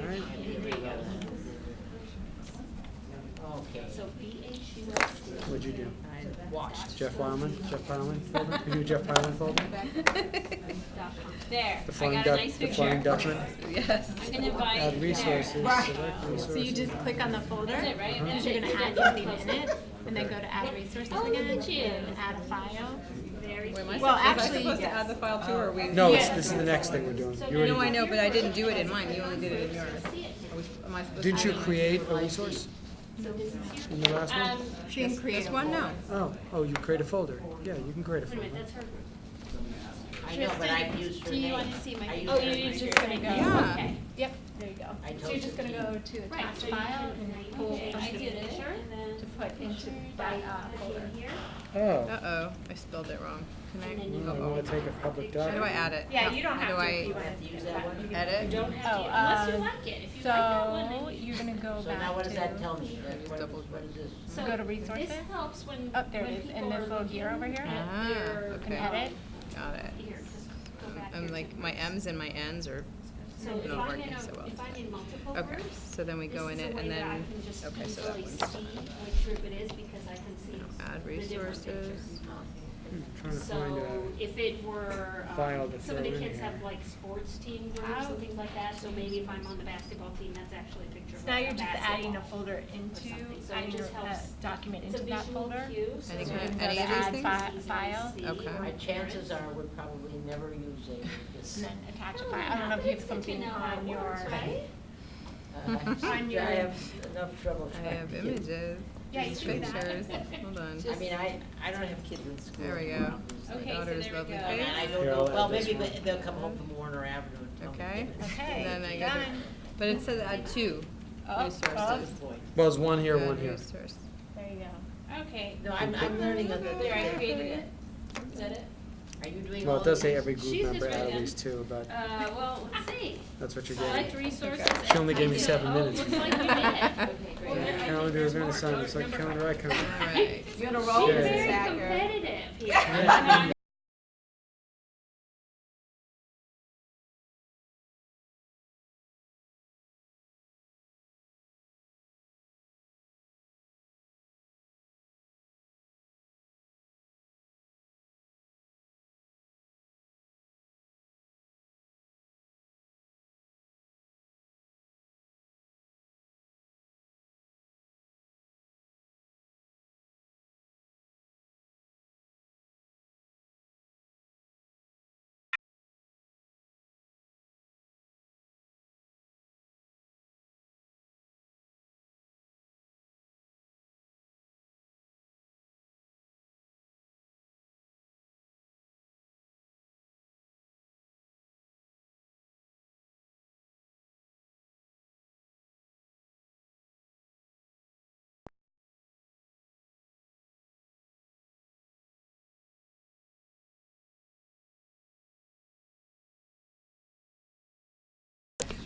Alright. Okay. So B H U S T. What'd you do? I watched. Jeff Wyman, Jeff Wyman folder? You do Jeff Wyman folder? There, The I flying got a duck, nice the picture. flying I'm Dutchman? Yes. gonna invite. Add there. resources. Right. select So you just resources. click on the folder, That's it, right? Uh-huh. because you're gonna add something in it, and then go to add resources Oh, look again, at you. and add a file. Very Wait, am cute. I sup- Well, was I actually, supposed to yes. add the file too, or we? No, it's, Yeah. this is the next thing we're doing. You No, I already did. know, but I didn't do it in mine. You only did it in yours. See it. Are we- Am I supposed to? Didn't you create a resource So this is in you. the last one? Um, She can create This a one, no. Oh, oh, you create a folder. Yeah, you can create a wait a folder. minute, that's her group. I know, but I've used her do you name. wanna see my- I used Oh, her you're name. just gonna go, Yeah. okay. Yep, there you go. I So you're told just you. gonna go to Right, attach so you file can- and pull okay, from I the did it, picture and then to put into that uh, folder. Oh, Uh-oh, I spelled it wrong. Can I? well, I uh-oh. wanna take a public How do I document. add it? Yeah, No, you don't how have do to I if you I have to use that one. Edit? You don't have Oh, to. Unless you um, like it, if you like that one, So, then you. you're gonna go So now what does back that to, tell me? That's what, Double what is this? So go to resources. This helps when. Oh, there it when is, in people this are little gear looking over here. at Ah, their, okay. um, Edit. Got it. Here, just go Um, back I'm here like, to- my M's and my N's are, So if not I'm working in a, so well if I'm in multiple okay, groups, so then we this go in is a it way and that I then, can just okay, so that easily one's see which group it is because I can see add the different resources. pictures. I'm Trying to find So a, if it were, file um, to some of the throw in kids have here. like sports team groups and things like that, so maybe if I'm on the basketball team, that's actually a picture of So now like you're a just adding a basketball. folder or into, something. So it adding your just uh, helps- document It's a into that visual folder. cue, so Any that kind you of- can any go of to these add things? fi- file. Okay. or My My parents. chances are we're probably never using this. And then Oh, attach a file. I don't know if you have something on your. Uh, On your- I have enough trouble I trying to have get- images, Yeah, there's you do that. pictures, hold on. I mean, I, I don't have kids in school. There we I go. don't use them. My Okay, so daughter's there we lovely go. uh, And face, I don't Here, know, I'll add well, this maybe one. they- they'll come home from Warner Avenue and tell me. okay? that it's- Okay, And then I gotta, done. Oh, but it says add two Up, up. resources. Boy. well, there's one here, Add one here. resource. oh, There you go. Okay, No, I'm, I'm learning on the, there, I created it. Is that it? Are you doing all Well, of it does say these? every group She's member just out of right these two, but Uh, well, let's see. that's what you're Select getting. resources. She only gave me I did it. seven Oh, minutes. Looks like we did it. Okay, Well, great. there- I think Calendar there's is going more. to sound Oh, just like number calendar icon. Alright. You're gonna roll She's with this, very Zachary. competitive here. Yeah.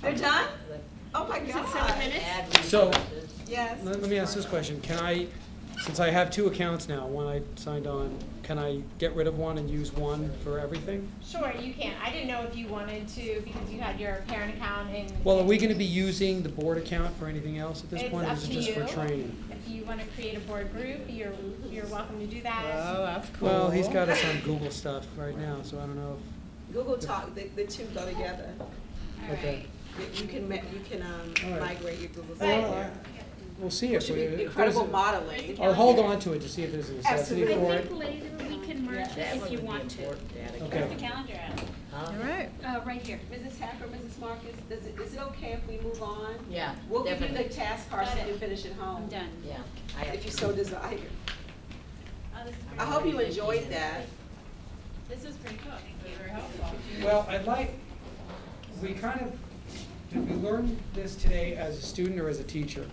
They're done? Oh my Seven god. minutes? Add So- resources. Yes. Let, let me ask this question. Can I, since I have two accounts now, one I signed on, can I get rid of one and use one for everything? Sure, you can. I didn't know if you wanted to because you had your parent account and. Well, are we going to be using the board account for anything else at this It's point, or up is it to just for you. training? If you wanna create a board group, you're, you're welcome to do that. Oh, that's cool. Well, he's got us on Google stuff right now, so I don't know. Google Talk, the, the two go together. All if- Okay. right. You- You can, ma- you can All right. um, migrate your Google Well, Docs. I- We'll see if Should we- if be there's incredible a- modeling. I'll hold on to it to see if there's a necessity Absolutely. for I it. think later we can merge That it if one you would be want to. important, add a Okay. Where's the calendar at? Huh? Alright. Uh, right here. Mrs. Hacker, Mrs. Marcus, is it, is it okay if we move on? Yeah, We'll give you the definitely, task Got parcel it. and finish at I'm home, done. yeah. I- if you so desire. Oh, this is I pretty- hope you enjoyed that. This is pretty cool. Thank you. Very helpful. Well, I'd like, we kind of, did we learn this today as a student or as a teacher?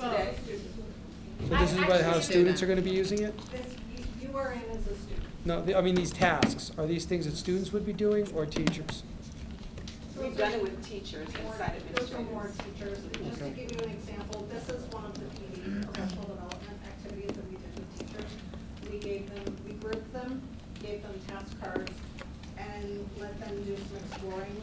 Today. So this is about how students are gonna be using it? This, you- you are in as a student. No, the- I mean, these tasks, are these things that students would be doing or teachers? We've done it with teachers and site Those are more administrators. teachers. And Just to Okay. give you an example, this is one of the PD professional development activities that we did with teachers. We gave them, we grouped them, gave them task cards, and let them do some exploring